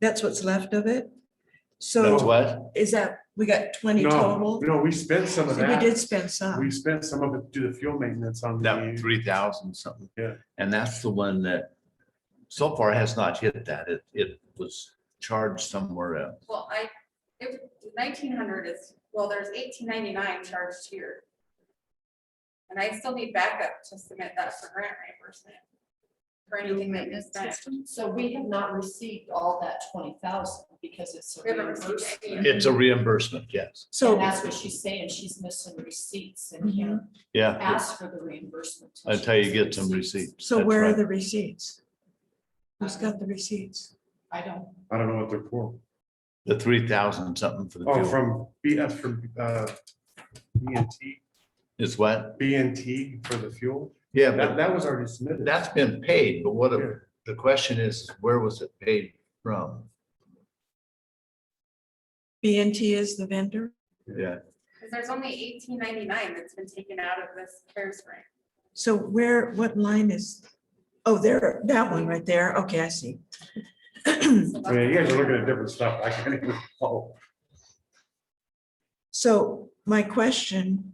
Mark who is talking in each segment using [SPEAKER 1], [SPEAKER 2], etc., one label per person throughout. [SPEAKER 1] That's what's left of it?
[SPEAKER 2] That's
[SPEAKER 1] So
[SPEAKER 2] what?
[SPEAKER 1] is that, we got twenty
[SPEAKER 3] No,
[SPEAKER 1] total?
[SPEAKER 3] no, we spent some of
[SPEAKER 1] So We
[SPEAKER 3] that.
[SPEAKER 1] did spend some.
[SPEAKER 3] We spent some of it to do the fuel maintenance on
[SPEAKER 2] That
[SPEAKER 3] the,
[SPEAKER 2] three thousand something.
[SPEAKER 3] Yeah.
[SPEAKER 2] And that's the one that so far has not hit that. It, it was charged somewhere else.
[SPEAKER 4] Well, I, it, nineteen hundred is, well, there's eighteen ninety-nine charged here. And I still need backup to submit that for grant reimbursement. For anything that is spent.
[SPEAKER 5] So we have not received all that twenty thousand because it's. a
[SPEAKER 4] We haven't received
[SPEAKER 5] reimbursement.
[SPEAKER 4] any.
[SPEAKER 2] It's a reimbursement, yes.
[SPEAKER 5] And
[SPEAKER 1] So,
[SPEAKER 5] that's what she's saying, she's missing receipts and can't
[SPEAKER 2] Yeah,
[SPEAKER 5] ask for the reimbursement. till she
[SPEAKER 2] until you
[SPEAKER 5] gets
[SPEAKER 2] get
[SPEAKER 5] the
[SPEAKER 2] some receipts.
[SPEAKER 1] so
[SPEAKER 2] That's
[SPEAKER 1] where are
[SPEAKER 2] right.
[SPEAKER 1] the receipts? Who's got the receipts?
[SPEAKER 5] I don't,
[SPEAKER 3] I don't know what they're for.
[SPEAKER 2] The three thousand something for the
[SPEAKER 3] Oh,
[SPEAKER 2] fuel
[SPEAKER 3] from, B- that's from, uh, BNT,
[SPEAKER 2] is what?
[SPEAKER 3] BNT for the fuel.
[SPEAKER 2] Yeah,
[SPEAKER 3] That,
[SPEAKER 2] but
[SPEAKER 3] that was already submitted.
[SPEAKER 2] that's been paid, but what,
[SPEAKER 3] Yeah.
[SPEAKER 2] the question is, where was it paid from?
[SPEAKER 1] B and T is the vendor?
[SPEAKER 2] Yeah,
[SPEAKER 4] Cause there's only eighteen ninety-nine that's been taken out of this CARES grant.
[SPEAKER 1] So where, what line is? Oh, there, that one right there. Okay, I see.
[SPEAKER 4] So that's-
[SPEAKER 3] I mean, you guys are looking at different stuff. I can't even, oh,
[SPEAKER 1] So my question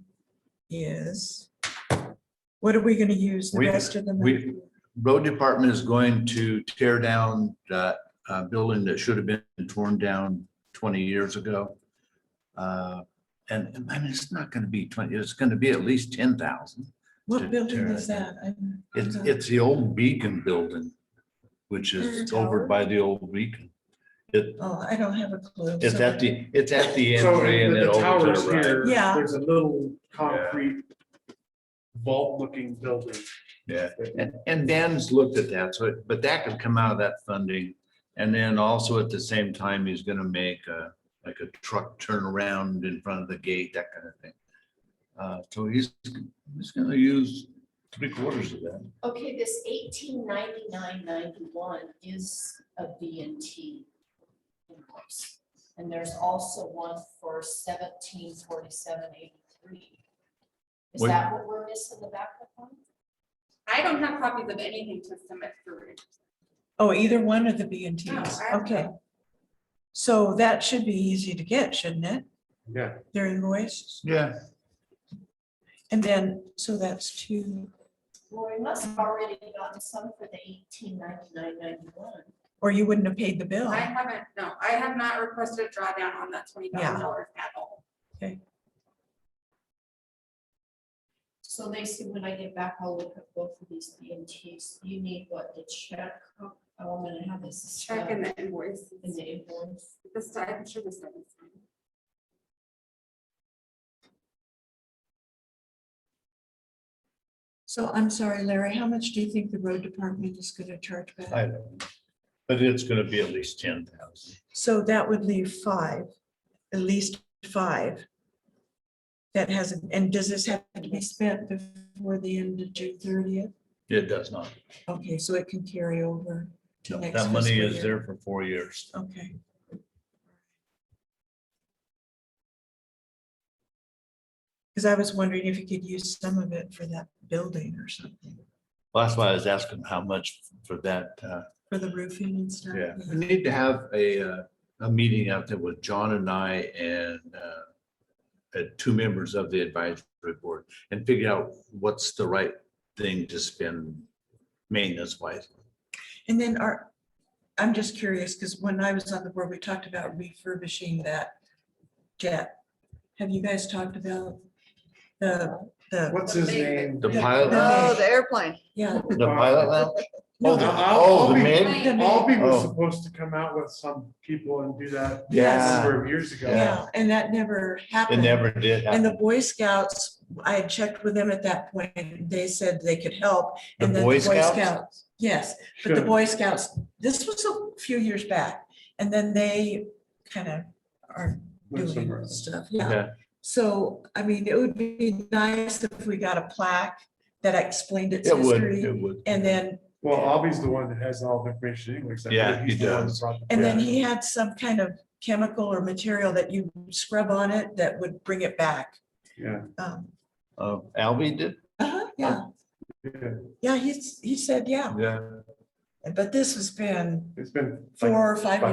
[SPEAKER 1] is, what are we gonna use the
[SPEAKER 2] We-
[SPEAKER 1] rest of the money?
[SPEAKER 2] we, road department is going to tear down that uh, building that should have been torn down twenty years ago. Uh, And, and I mean, it's not gonna be twenty, it's gonna be at least ten thousand.
[SPEAKER 1] What building is that?
[SPEAKER 2] Deterrent.
[SPEAKER 1] I'm-
[SPEAKER 2] It's, it's the old Beacon building, which is over by the old Beacon. It,
[SPEAKER 1] Oh, I don't have a clue.
[SPEAKER 2] it's
[SPEAKER 1] So-
[SPEAKER 2] at the, it's at the
[SPEAKER 3] So
[SPEAKER 2] entry and
[SPEAKER 3] the
[SPEAKER 2] then
[SPEAKER 3] the
[SPEAKER 2] over to
[SPEAKER 3] towers
[SPEAKER 2] the right.
[SPEAKER 3] here,
[SPEAKER 1] Yeah.
[SPEAKER 3] there's a little concrete vault looking building.
[SPEAKER 2] Yeah, and, and Dan's looked at that, so, it- but that could come out of that funding. And then also at the same time, he's gonna make a, like a truck turnaround in front of the gate, that kind of thing. Uh, so he's, he's gonna use three quarters of that.
[SPEAKER 5] okay, this eighteen ninety-nine ninety-one is a B and T invoice. And there's also one for seventeen forty-seven eighty-three. Is
[SPEAKER 2] Wait.
[SPEAKER 5] that what we're missing the backup on?
[SPEAKER 4] I don't have copies of anything to submit for reimbursement.
[SPEAKER 1] Oh, either one of the B and
[SPEAKER 4] No,
[SPEAKER 1] Ts.
[SPEAKER 4] I-
[SPEAKER 1] Okay. So that should be easy to get, shouldn't it?
[SPEAKER 3] Yeah,
[SPEAKER 1] Their invoices.
[SPEAKER 2] Yeah.
[SPEAKER 1] And then, so that's two,
[SPEAKER 5] Well, we must have already gotten some for the eighteen ninety-nine ninety-one.
[SPEAKER 1] or you wouldn't have paid the bill.
[SPEAKER 4] I haven't, no, I have not requested a drawdown on that twenty thousand dollars at all.
[SPEAKER 5] So they said, when I get back, I'll look at both of these BMTs. You need what, the check? Oh, I'm gonna have this. uh,
[SPEAKER 4] Check in the invoice.
[SPEAKER 5] In the invoice.
[SPEAKER 4] This time, I'm sure this time is fine.
[SPEAKER 1] So I'm sorry, Larry, how much do you think the road department is gonna charge
[SPEAKER 2] I
[SPEAKER 1] back?
[SPEAKER 2] don't know. But it's gonna be at least ten thousand.
[SPEAKER 1] So that would leave five, at least five. That hasn't, and does this have to be spent before the end of June thirtieth?
[SPEAKER 2] It does not.
[SPEAKER 1] Okay, so it can carry over. to
[SPEAKER 2] No,
[SPEAKER 1] next
[SPEAKER 2] That money
[SPEAKER 1] fiscal
[SPEAKER 2] is
[SPEAKER 1] year.
[SPEAKER 2] there for four years.
[SPEAKER 1] Okay. Because I was wondering if you could use some of it for that building or something,
[SPEAKER 2] That's why I was asking how much for that, uh,
[SPEAKER 1] for the roofing and stuff.
[SPEAKER 2] Yeah, we need to have a, uh, a meeting out there with John and I and uh, uh, two members of the advisory board and figure out what's the right thing to spend maintenance wise.
[SPEAKER 1] And then our, I'm just curious, because when I was on the board, we talked about refurbishing that jet. Have you guys talked about the, the,
[SPEAKER 3] what's his name?
[SPEAKER 2] The pilot, lounge?
[SPEAKER 6] No, the airplane.
[SPEAKER 1] yeah,
[SPEAKER 2] the pilot lounge?
[SPEAKER 1] No,
[SPEAKER 2] Oh, the-
[SPEAKER 3] I'll-
[SPEAKER 2] oh, the
[SPEAKER 3] I'll be-
[SPEAKER 2] mid?
[SPEAKER 1] the-
[SPEAKER 3] Albee was
[SPEAKER 2] Oh.
[SPEAKER 3] supposed to come out with some people and do that a
[SPEAKER 1] Yes.
[SPEAKER 3] number of years ago.
[SPEAKER 1] yeah, and that never
[SPEAKER 2] It
[SPEAKER 1] happened.
[SPEAKER 2] never did
[SPEAKER 1] And the
[SPEAKER 2] happen.
[SPEAKER 1] Boy Scouts, I had checked with them at that point, they said they could help.
[SPEAKER 2] The
[SPEAKER 1] and then
[SPEAKER 2] Boy Scouts?
[SPEAKER 1] Scouts- Yes, but the
[SPEAKER 3] Should've.
[SPEAKER 1] Boy Scouts, this was a few years back, and then they kind of are
[SPEAKER 3] Went somewhere
[SPEAKER 1] doing
[SPEAKER 3] else.
[SPEAKER 1] stuff, yeah.
[SPEAKER 2] Yeah.
[SPEAKER 1] So, I mean, it would be nice if we got a plaque that explained its
[SPEAKER 2] It would, it
[SPEAKER 1] history.
[SPEAKER 2] would.
[SPEAKER 1] And then,
[SPEAKER 3] Well, Albie's the one that has all the information anyways. I believe
[SPEAKER 2] Yeah, he
[SPEAKER 3] he's the one that
[SPEAKER 2] does.
[SPEAKER 3] brought the-
[SPEAKER 1] and then he had some kind of chemical or material that you scrub on it that would bring it back.
[SPEAKER 3] Yeah,
[SPEAKER 1] Um,
[SPEAKER 2] Uh, Albie did?
[SPEAKER 1] uh-huh,
[SPEAKER 2] Uh,
[SPEAKER 1] Yeah,
[SPEAKER 3] yeah,
[SPEAKER 1] yeah, he's, he said, yeah.
[SPEAKER 2] Yeah.
[SPEAKER 1] But this has been
[SPEAKER 3] it's been. like
[SPEAKER 1] four or five